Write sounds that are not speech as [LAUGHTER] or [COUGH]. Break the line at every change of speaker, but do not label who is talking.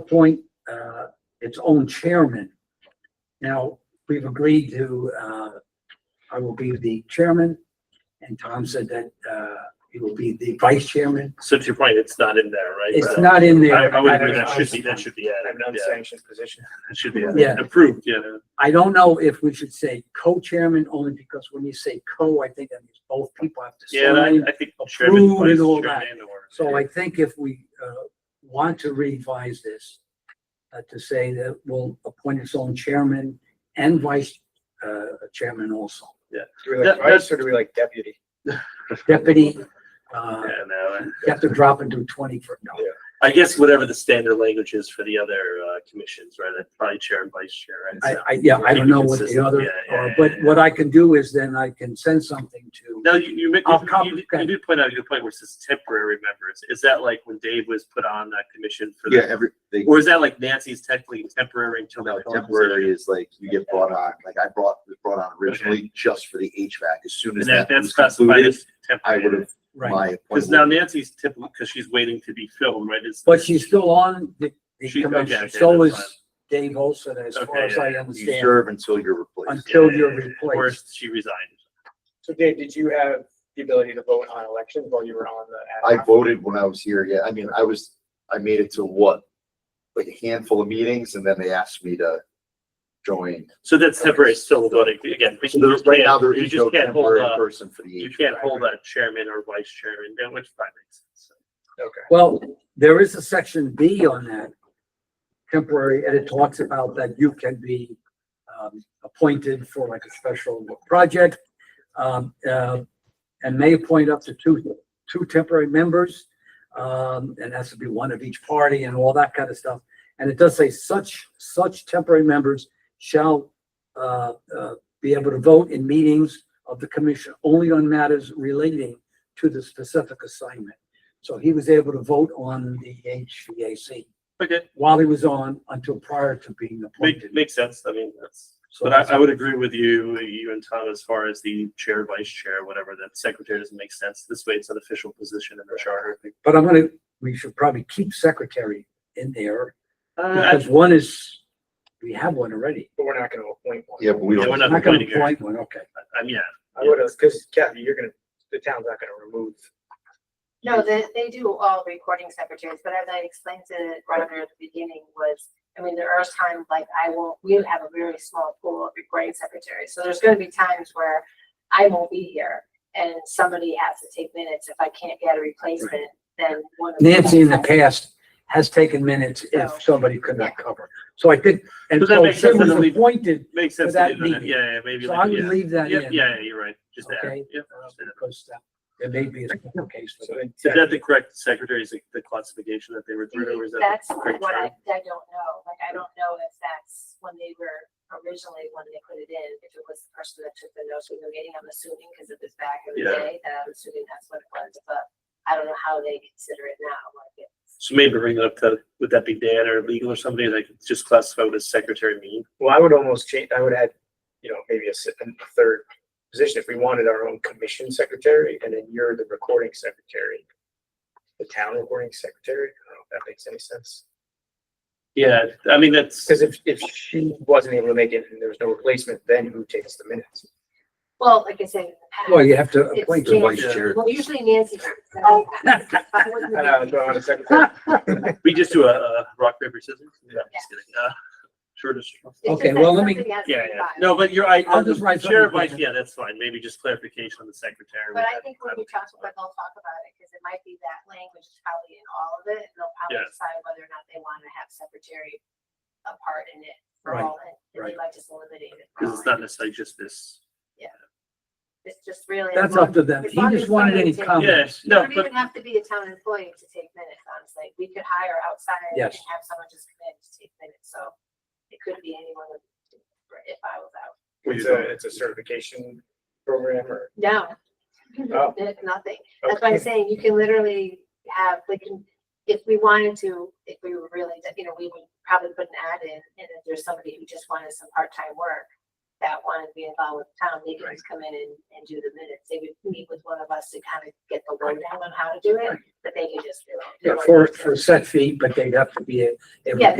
appoint uh, its own chairman. Now, we've agreed to, uh, I will be the chairman, and Tom said that uh, he will be the vice chairman.
So to your point, it's not in there, right?
It's not in there.
I, I would agree, that should be, that should be
an
added, yeah,
unsanctioned position.
that should be added,
Yeah.
approved, yeah.
I don't know if we should say co-chairman, only because when you say co, I think that means both people have to
Yeah, and
sign.
I, I think chairman,
Approved
vice
and all that.
chairman, or.
So I think if we uh, want to revise this, uh, to say that we'll appoint its own chairman and vice uh, chairman also,
Do we like
That-
vice or do we like deputy?
deputy, uh,
Yeah, no, I-
you have to drop into twenty for, no.
I guess whatever the standard language is for the other, uh, commissions, right, like probably chair and vice chair,
I,
right? So-
I, yeah, I don't know what the
Consistent,
other,
yeah, yeah,
are,
yeah,
but
yeah.
what I can do is then I can send something to,
Now, you, you, make-
I'll
you-
copy-
you, did- you did point out a good point where it says temporary members, is that like when Dave was put on that commission for
Yeah,
the?
every, they,
Or is that like Nancy's technically temporary until?
no,
the
temporary is like you get brought on, like I brought, was brought on originally just for the HVAC. As soon
And
as
that,
that
that's
was
classified
concluded,
as
I would
temporary.
have,
right?
my
Because now
appointment.
Nancy's typical, because she's waiting to be filmed, right? It's-
But she's still on the, the
She- okay,
commission,
okay,
so
that's
is Dave Olson, as far
Okay,
as I
You
understand,
serve until you're replaced.
until you're
Yeah, yeah, yeah.
replaced.
Or she resigned.
So Dave, did you have the ability to vote on elections while you were on the? ad
I
hoc?
voted when I was here, yeah, I mean, I was, I made it to what? Like a handful of meetings and then they asked me to join.
So that's temporary, it's still voting, again. we
So there's,
just
right now,
can't-
there
you
is
just
no
can't hold
temporary
a-
person for the
You
HVAC.
can't hold a chairman or vice chairman, yeah, which probably makes sense.
Well, there is a section B on that temporary, and it talks about that you can be um, appointed for like a special project. um, uh, And may appoint up to two, two temporary members. um, And has to be one of each party and all that kind of stuff. And it does say such, such temporary members shall uh, uh, be able to vote in meetings of the commission only on matters relating to the specific assignment. So he was able to vote on the HVAC
Okay,
while he was on until prior to being
make,
appointed.
makes sense, I mean, that's.
So
But I, I
that's-
would agree with you, you and Tom, as far as the chair, vice chair, whatever, that secretary doesn't make sense. This way, it's an official position in the charter.
But I'm gonna, we should probably keep secretary in there
Uh,
because one is, we have one already.
But we're not gonna appoint one.
Yeah, but we
Yeah,
don't.
we're
I'm
not
not gonna
appointing her.
appoint one, okay.
I- I'm, yeah,
I would have, because Kathy, you're gonna, the town's not gonna remove.
No, they, they do all recording secretaries, but as I explained to Roger at the beginning was, I mean, there are times like I will, we have a very small pool of recording secretaries. So there's gonna be times where I won't be here and somebody has to take minutes. If I can't get a replacement, then one. of
Nancy in the past has taken minutes if somebody could not cover. So I think, and
Does that
so
make
she
sense?
was
Then leave-
appointed,
makes sense. to
that
leave it in.
meeting.
Yeah, yeah, maybe.
so
like-
I would
yeah.
leave that
Yeah,
in.
yeah, you're right, just add,
Okay.
yeah.
uh, Because that- there may be a special case for
So
that.
then-
Is that the correct secretary's, the classification that they were through, or is that?
That's
the correct
what I,
term?
I don't know. Like, I don't know if that's when they were originally, when they put it in, if it was the person that took the notes from the meeting, I'm assuming, because it was back in the
Yeah.
day, that I'm assuming that's what it was, but I don't know how they consider it now, like, it's,
So maybe bring it up to, would that be Dan or legal or somebody that could just classify what a secretary mean?
Well, I would almost change, I would add, you know, maybe a se- a third position if we wanted our own commission secretary and then you're the recording secretary. The town recording secretary, I don't know if that makes any sense.
Yeah, I mean, that's,
Because if, if she wasn't able to make it and there was no replacement, then who takes the minutes?
well, like I said, in the past.
Well, you have to
it's
appoint her.
the vice
Nancy.
chair.
Well, usually Nancy. [LAUGHS] does that. I wouldn't
And I
be-
would throw on a secretary.
we just do a, uh rock, paper, scissors. Yeah, I'm just kidding. Uh, Shortest.
it's
[LAUGHS] Okay,
just that
well, let me-
somebody has to
Yeah, yeah.
be involved.
No, but you're, I,
I'll just write
chair,
something
vice,
down.
yeah, that's fine. Maybe just clarification on the secretary.
But
would
I
have-
think when we talk about, it, they'll talk about it, because it might be that language is probably in all of it, and they'll probably
Yes.
decide whether or not they want to have secretary a part in it for
Right,
all, and and
right.
they might just eliminate it.
Cause
for all.
it's not necessarily just this.
It's just really.
That's up to them.
As
He
long
just
as
wanted any
somebody
comments.
Yeah,
takes- You
no,
don't
but
even have to be a town employee to take minutes, honestly. We could hire outside and
Yes.
have someone just come in to take minutes, so it could be anyone if I was out.
It's a, it's a certification program or.
No. [LAUGHS]
Oh.
Nothing. That's why I'm saying you can literally have, we can, if we wanted to, if we were really, you know, we would probably put an ad in, and if there's somebody who just wanted some part-time work, that wanted to be involved with town, they could just come in and, and do the minutes. They would meet with one of us to kind of get the lowdown on how to do it, but they could just do it.
Yeah, for, for a set fee, but they'd have to be a. a-
Yeah,